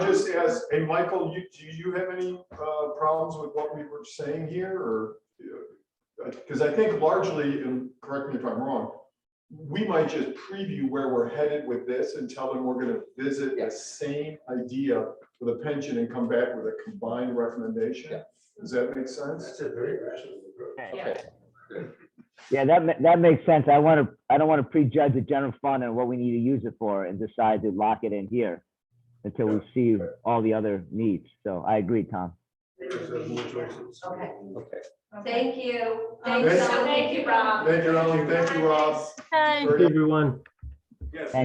just ask, hey, Michael, you, do you have any, uh, problems with what we were saying here or? Because I think largely, and correct me if I'm wrong, we might just preview where we're headed with this and tell them we're gonna visit the Yes. same idea for the pension and come back with a combined recommendation. Yeah. Does that make sense? a very rational approach. Okay. Yeah, that, ma- that makes sense. I want to, I don't want to prejudge the general fund and what we need to use it for and decide to lock it in here until we see all the other needs. So I agree, Tom. There's more choices. Okay. Okay. Thank you. Okay. Thanks, Ellen. thank you, Rob. Thank you, Ellen. Thank you, Rob. Hi. Very Everyone.